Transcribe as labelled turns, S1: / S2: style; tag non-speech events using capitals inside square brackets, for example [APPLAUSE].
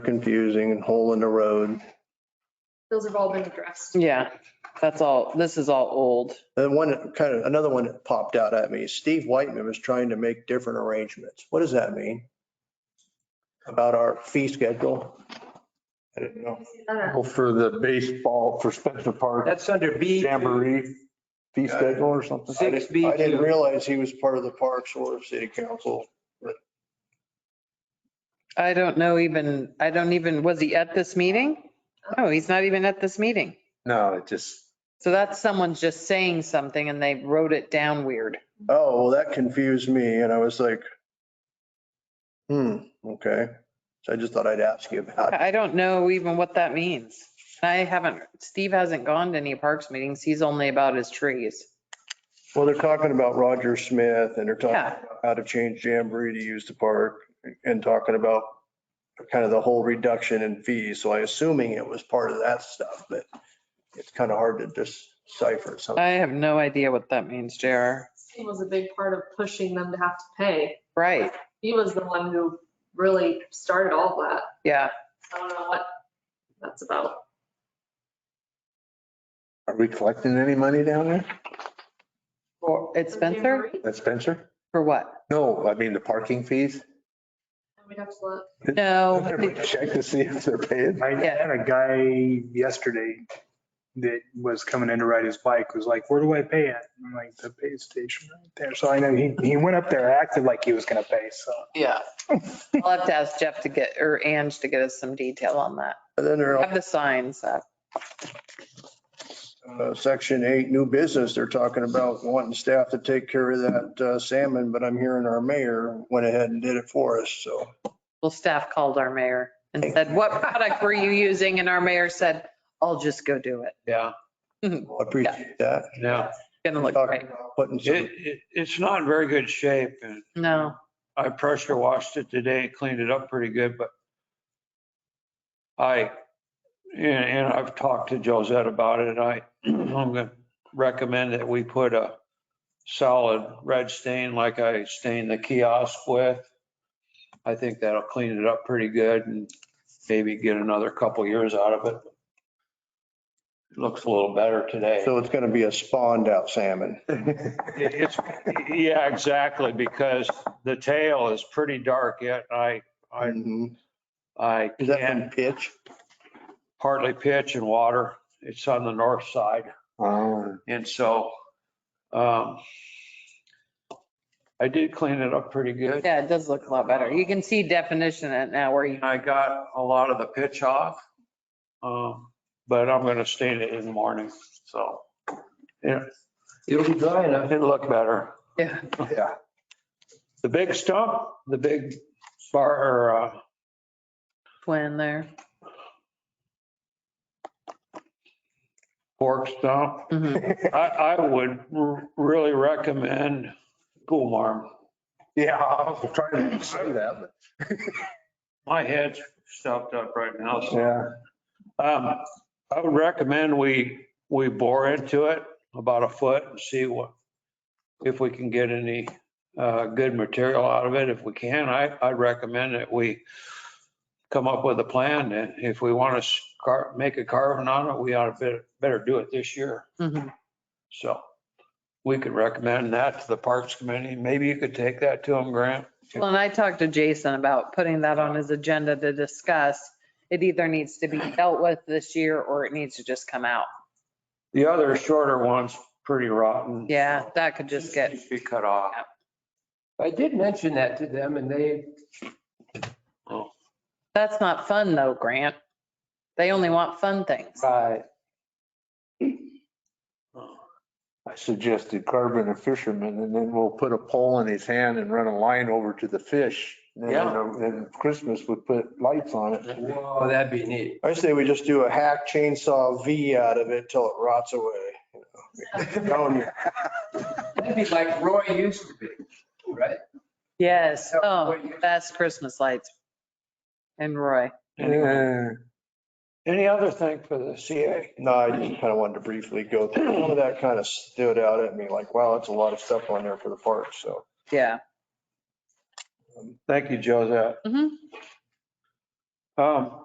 S1: confusing and hole in the road.
S2: Those have all been addressed.
S3: Yeah, that's all, this is all old.
S1: And one, kind of, another one that popped out at me, Steve Whiteman was trying to make different arrangements. What does that mean? About our fee schedule? I didn't know.
S2: Uh,
S4: Well, for the baseball, for Spencer Park
S5: That's under B.
S4: Jamboree fee schedule or something.
S1: I
S5: Six
S1: didn't-
S5: B
S1: I didn't
S5: two.
S1: realize he was part of the Parks or City Council.
S3: I don't know even, I don't even, was he at this meeting? No, he's not even at this meeting.
S4: No, it just,
S3: So that's someone's just saying something and they wrote it down weird.
S1: Oh, well, that confused me and I was like, hmm, okay. So I just thought I'd ask you about it.
S3: I don't know even what that means. I haven't, Steve hasn't gone to any parks meetings. He's only about his trees.
S1: Well, they're talking about Roger Smith and they're talking
S3: Yeah.
S1: about how to change Jamboree to use the park and talking about kind of the whole reduction in fees. So I assuming it was part of that stuff, but it's kind of hard to decipher something.
S3: I have no idea what that means, JR.
S2: He was a big part of pushing them to have to pay.
S3: Right,
S2: He was the one who really started all of that.
S3: yeah.
S2: I don't know what that's about.
S4: are we collecting any money down there
S3: Or it's Spencer?
S2: Jamboree?
S4: at Spencer?
S3: For what?
S4: [LAUGHS] No, I mean the parking fees.
S2: We'd have to look.
S3: No, [LAUGHS] I think-
S4: Check to see if they're paying.
S6: I
S3: Yeah.
S6: had a guy yesterday that was coming in to ride his bike, was like, where do I pay at? I'm like, the pay station right there. So I know he, he went up there, acted like he was gonna pay, so.
S3: yeah. I'll have to ask Jeff to get, or Ange to get us some detail on that.
S1: And then they're
S3: Have the signs up.
S1: Uh, Section eight, new business, they're talking about wanting staff to take care of that uh, salmon, but I'm hearing our mayor went ahead and did it for us, so.
S3: Well, staff called our mayor and said, what product were you using? And our mayor said, I'll just go do it.
S5: Yeah,
S1: I appreciate that.
S5: yeah.
S3: Gonna look
S1: Talking
S3: great.
S1: about Putting
S5: It,
S1: some,
S5: it, it's not in very good shape and
S3: No,
S5: I pressure washed it today, cleaned it up pretty good, but I, and, and I've talked to Josette about it. I, [CLEARS THROAT] I'm gonna recommend that we put a solid red stain like I stained the kiosk with. I think that'll clean it up pretty good and maybe get another couple years out of it. It Looks a little better today.
S1: so it's going to be a spawned out salmon.
S5: It- It's, yeah, exactly, because the tail is pretty dark yet. I, I,
S1: Mhm.
S5: I
S1: Is that from
S5: can
S1: pitch?
S5: hardly pitch in water. It's on the north side.
S4: Oh,
S5: And so, um, I did clean it up pretty good.
S3: yeah, it does look a lot better. You can see definition in it now where you,
S5: I got a lot of the pitch off. Um, but I'm gonna stain it in the morning, so. Yeah, it'll be dry enough. It'll look better.
S3: yeah,
S4: yeah.
S5: The big stump, the big bar, or, uh,
S3: Flynn there.
S5: fork stump,
S3: Mhm.
S5: I, I would r- really recommend Cool Marm.
S4: Yeah, I was trying to say that,
S5: My head's stuffed up right now,
S4: but
S5: so.
S4: yeah.
S5: Um, I would recommend we, we bore into it about a foot and see what, if we can get any, uh, good material out of it. If we can, I, I'd recommend that we come up with a plan and if we want to car, make a carving on it, we ought to better, better do it this year.
S3: Mhm.
S5: So we could recommend that to the Parks Committee. Maybe you could take that to them, Grant.
S3: Well, and I talked to Jason about putting that on his agenda to discuss. It either needs to be dealt with this year or it needs to just come out.
S5: The other shorter one's pretty rotten.
S3: Yeah, that could just get,
S5: Be cut off.
S7: I did mention that to them and they,
S3: that's not fun though, Grant. They only want fun things.
S7: right,
S4: I suggested carving a fisherman and then we'll put a pole in his hand and run a line over to the fish. And then, uh, then Christmas would put lights on it.
S7: whoa, that'd be neat.
S1: I say we just do a hack chainsaw V out of it till it rots away. Telling you.
S7: That'd be like Roy used to be, right?
S3: Yes, oh, best Christmas lights. And Roy.
S5: Anyway,
S4: Yeah.
S5: Any other thing for the CA?
S1: No, I just kind of wanted to briefly go through, some of that kind of stood out at me, like, wow, that's a lot of stuff on there for the park, so.
S3: Yeah.
S5: Thank you, Josette.
S3: Mhm.
S5: Uh, Um,